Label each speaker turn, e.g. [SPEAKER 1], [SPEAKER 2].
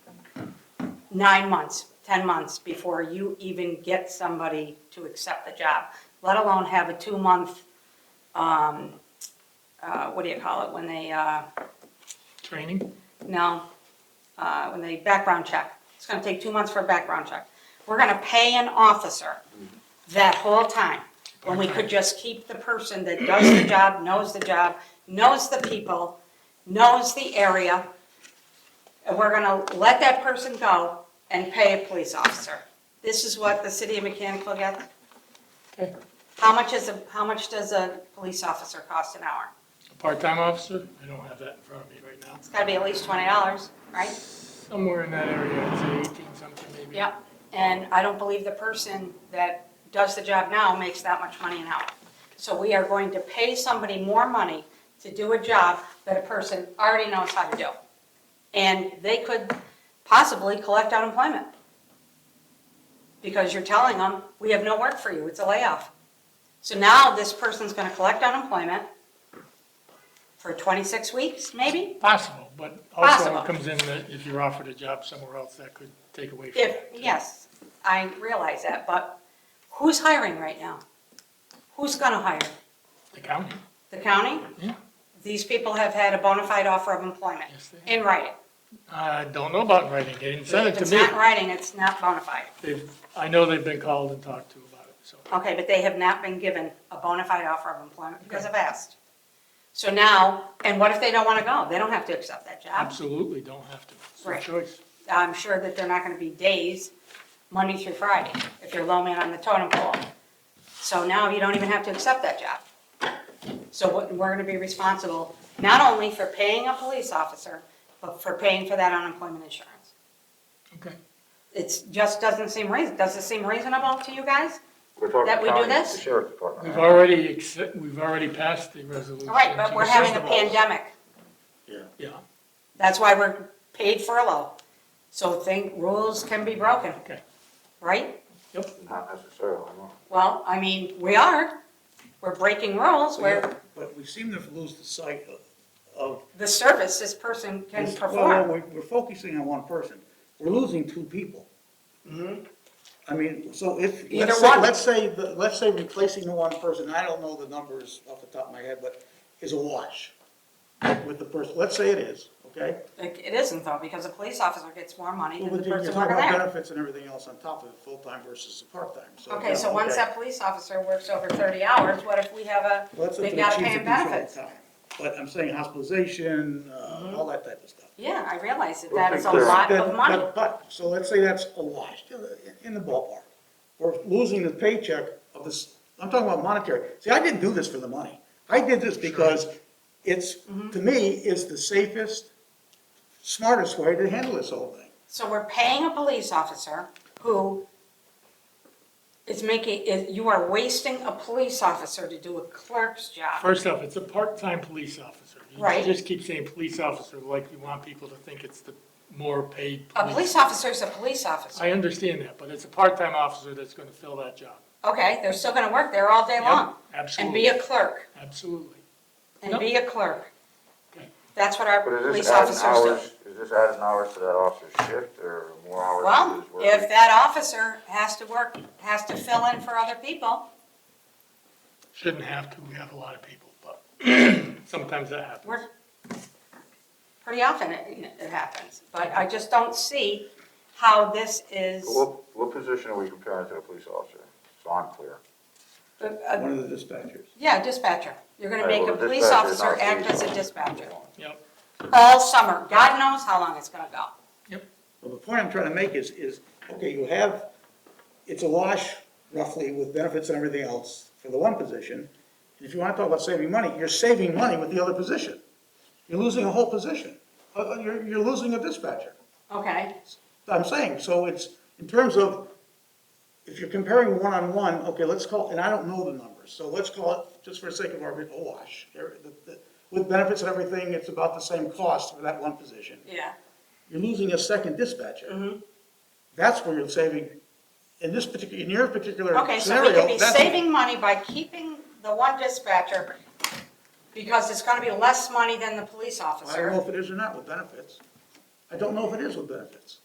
[SPEAKER 1] nine months, 10 months before you even get somebody to accept the job, let alone have a two-month, um, uh, what do you call it, when they, uh,
[SPEAKER 2] Training?
[SPEAKER 1] no, uh, when they background check. It's gonna take two months for a background check. We're gonna pay an officer that whole time, when we could just keep the person that does the job, knows the job, knows the people, knows the area. And we're gonna let that person go and pay a police officer. This is what the city of Mechanical got.
[SPEAKER 2] Okay.
[SPEAKER 1] How much is, a how much does a police officer cost an hour?
[SPEAKER 2] A part-time officer? I don't have that in front of me right now.
[SPEAKER 1] It's gotta be at least twenty dollars, right?
[SPEAKER 2] Somewhere in that area, I'd say eighteen something maybe.
[SPEAKER 1] Yep, and I don't believe the person that does the job now makes that much money an hour. So we are going to pay somebody more money to do a job that a person already knows how to do. And they could possibly collect unemployment. Because you're telling them, we have no work for you, it's a layoff. So now this person's gonna collect unemployment for 26 weeks, maybe?
[SPEAKER 2] Possible, but also
[SPEAKER 1] Possible.
[SPEAKER 2] it comes in that if you're offered a job somewhere else, that could take away from
[SPEAKER 1] If,
[SPEAKER 2] that. too.
[SPEAKER 1] yes, I realize that, but who's hiring right now? Who's gonna hire?
[SPEAKER 2] The county,
[SPEAKER 1] The county?
[SPEAKER 2] yeah.
[SPEAKER 1] These people have had a bona fide offer of employment
[SPEAKER 2] Yes, they
[SPEAKER 1] in writing.
[SPEAKER 2] I don't know about writing. They didn't send it
[SPEAKER 1] If
[SPEAKER 2] to
[SPEAKER 1] it's
[SPEAKER 2] me.
[SPEAKER 1] not in writing, it's not bona fide.
[SPEAKER 2] They've, I know they've been called and talked to about it, so.
[SPEAKER 1] Okay, but they have not been given a bona fide offer of employment because I've asked. So now, and what if they don't wanna go? They don't have to accept that job.
[SPEAKER 2] Absolutely, don't have to. It's their
[SPEAKER 1] Right.
[SPEAKER 2] choice.
[SPEAKER 1] I'm sure that they're not gonna be days, Monday through Friday, if you're low man on the totem pole. So now you don't even have to accept that job. So what- we're gonna be responsible, not only for paying a police officer, but for paying for that unemployment insurance.
[SPEAKER 2] Okay.
[SPEAKER 1] It's, just doesn't seem reason, does it seem reasonable to you guys?
[SPEAKER 3] We're talking
[SPEAKER 1] That we do
[SPEAKER 3] county,
[SPEAKER 1] this?
[SPEAKER 3] The sheriff's department.
[SPEAKER 2] We've
[SPEAKER 3] right?
[SPEAKER 2] already, accept- we've already passed the resolution.
[SPEAKER 1] All right, but
[SPEAKER 2] to
[SPEAKER 1] we're having a
[SPEAKER 2] assist them.
[SPEAKER 1] pandemic.
[SPEAKER 2] Yeah,
[SPEAKER 1] That's why we're paid furlough. So think, rules can be broken,
[SPEAKER 2] okay,
[SPEAKER 1] right?
[SPEAKER 2] yep.
[SPEAKER 3] Not necessarily, no.
[SPEAKER 1] Well, I mean, we are. We're breaking rules, we're
[SPEAKER 4] But we seem to lose the sight of- of.
[SPEAKER 1] the service this person can
[SPEAKER 4] this- well, no,
[SPEAKER 1] perform.
[SPEAKER 4] we're- We're focusing on one person. We're losing two people. I mean, so if, let's say,
[SPEAKER 1] one.
[SPEAKER 4] let's say, the- let's say replacing the one person, I don't know the numbers off the top of my head, but is a wash with the person, let's say it is, okay?
[SPEAKER 1] Like, It isn't though, because a police officer gets more money than
[SPEAKER 4] Well,
[SPEAKER 1] the
[SPEAKER 4] You're
[SPEAKER 1] person
[SPEAKER 4] talking
[SPEAKER 1] working
[SPEAKER 4] about
[SPEAKER 1] there.
[SPEAKER 4] benefits and everything else on top of it, full-time versus a part-time, so.
[SPEAKER 1] Okay, so once
[SPEAKER 4] okay.
[SPEAKER 1] that police officer works over thirty hours, what if we have a,
[SPEAKER 4] Let's say
[SPEAKER 1] they
[SPEAKER 4] for
[SPEAKER 1] gotta
[SPEAKER 4] chief
[SPEAKER 1] pay
[SPEAKER 4] to
[SPEAKER 1] him
[SPEAKER 4] do full
[SPEAKER 1] benefits? Mm-hmm.
[SPEAKER 4] time. But I'm saying hospitalization, uh, all that type of stuff.
[SPEAKER 1] Yeah, I realize that
[SPEAKER 3] Well,
[SPEAKER 1] that is a
[SPEAKER 3] because
[SPEAKER 1] lot
[SPEAKER 4] That-
[SPEAKER 1] of money.
[SPEAKER 4] that- But, so let's say that's a wash, uh, in the ballpark. We're losing the paycheck of this, I'm talking about monetary. See, I didn't do this for the money. I did this because it's, to me, is the safest, smartest way to handle this whole thing.
[SPEAKER 1] So we're paying a police officer who is making, is- you are wasting a police officer to do a clerk's job.
[SPEAKER 2] First off, it's a part-time police officer.
[SPEAKER 1] Right.
[SPEAKER 2] You just keep saying police officer like you want people to think it's the more paid
[SPEAKER 1] A
[SPEAKER 2] police.
[SPEAKER 1] police officer is a police officer.
[SPEAKER 2] I understand that, but it's a part-time officer that's going to fill that job.
[SPEAKER 1] Okay, they're still gonna work there all day
[SPEAKER 2] Yep,
[SPEAKER 1] long. And be
[SPEAKER 2] Absolutely,
[SPEAKER 1] a clerk,
[SPEAKER 2] absolutely.
[SPEAKER 1] and be a clerk.
[SPEAKER 2] Okay.
[SPEAKER 1] That's what our
[SPEAKER 3] But is
[SPEAKER 1] police
[SPEAKER 3] this adding
[SPEAKER 1] officers do.
[SPEAKER 3] hours, is this adding hours to that officer's shift or more hours?
[SPEAKER 1] Well,
[SPEAKER 3] to his work
[SPEAKER 1] if
[SPEAKER 3] week?
[SPEAKER 1] that officer has to work, has to fill in for other people,
[SPEAKER 2] Shouldn't have to, we have a lot of people, but sometimes that happens.
[SPEAKER 1] we're, pretty often it, it happens. But I just don't see how this is,
[SPEAKER 3] But What, what position are we comparing to a police officer? So I'm clear.
[SPEAKER 1] uh, uh,
[SPEAKER 4] One of the dispatchers.
[SPEAKER 1] yeah, dispatcher. You're gonna
[SPEAKER 3] Right,
[SPEAKER 1] make a
[SPEAKER 3] well, the
[SPEAKER 1] police
[SPEAKER 3] dispatcher's
[SPEAKER 1] officer
[SPEAKER 3] not
[SPEAKER 1] act
[SPEAKER 3] police
[SPEAKER 1] as a
[SPEAKER 3] officer.
[SPEAKER 1] dispatcher
[SPEAKER 2] Yep,
[SPEAKER 1] all summer. God knows how long it's gonna go.
[SPEAKER 2] yep,
[SPEAKER 4] Well, the point I'm trying to make is, is, okay, you have, it's a wash roughly with benefits and everything else for the one position. And if you want to talk about saving money, you're saving money with the other position. You're losing a whole position. Uh, uh, You're, you're losing a dispatcher.
[SPEAKER 1] Okay,
[SPEAKER 4] I'm saying, so it's, in terms of, if you're comparing one-on-one, okay, let's call, and I don't know the numbers, so let's call it, just for the sake of argument, a wash. There- the- the- With benefits and everything, it's about the same cost for that one position
[SPEAKER 1] yeah.
[SPEAKER 4] you're losing a second
[SPEAKER 1] Mm-hmm.
[SPEAKER 4] dispatcher. That's where you're saving, in this particular, in your particular
[SPEAKER 1] Okay, so we
[SPEAKER 4] scenario,
[SPEAKER 1] could be
[SPEAKER 4] that's-
[SPEAKER 1] saving money by keeping the one dispatcher because it's gonna be less money than the police
[SPEAKER 4] I don't know
[SPEAKER 1] officer.
[SPEAKER 4] if it is or not with benefits. I don't know if it is with benefits.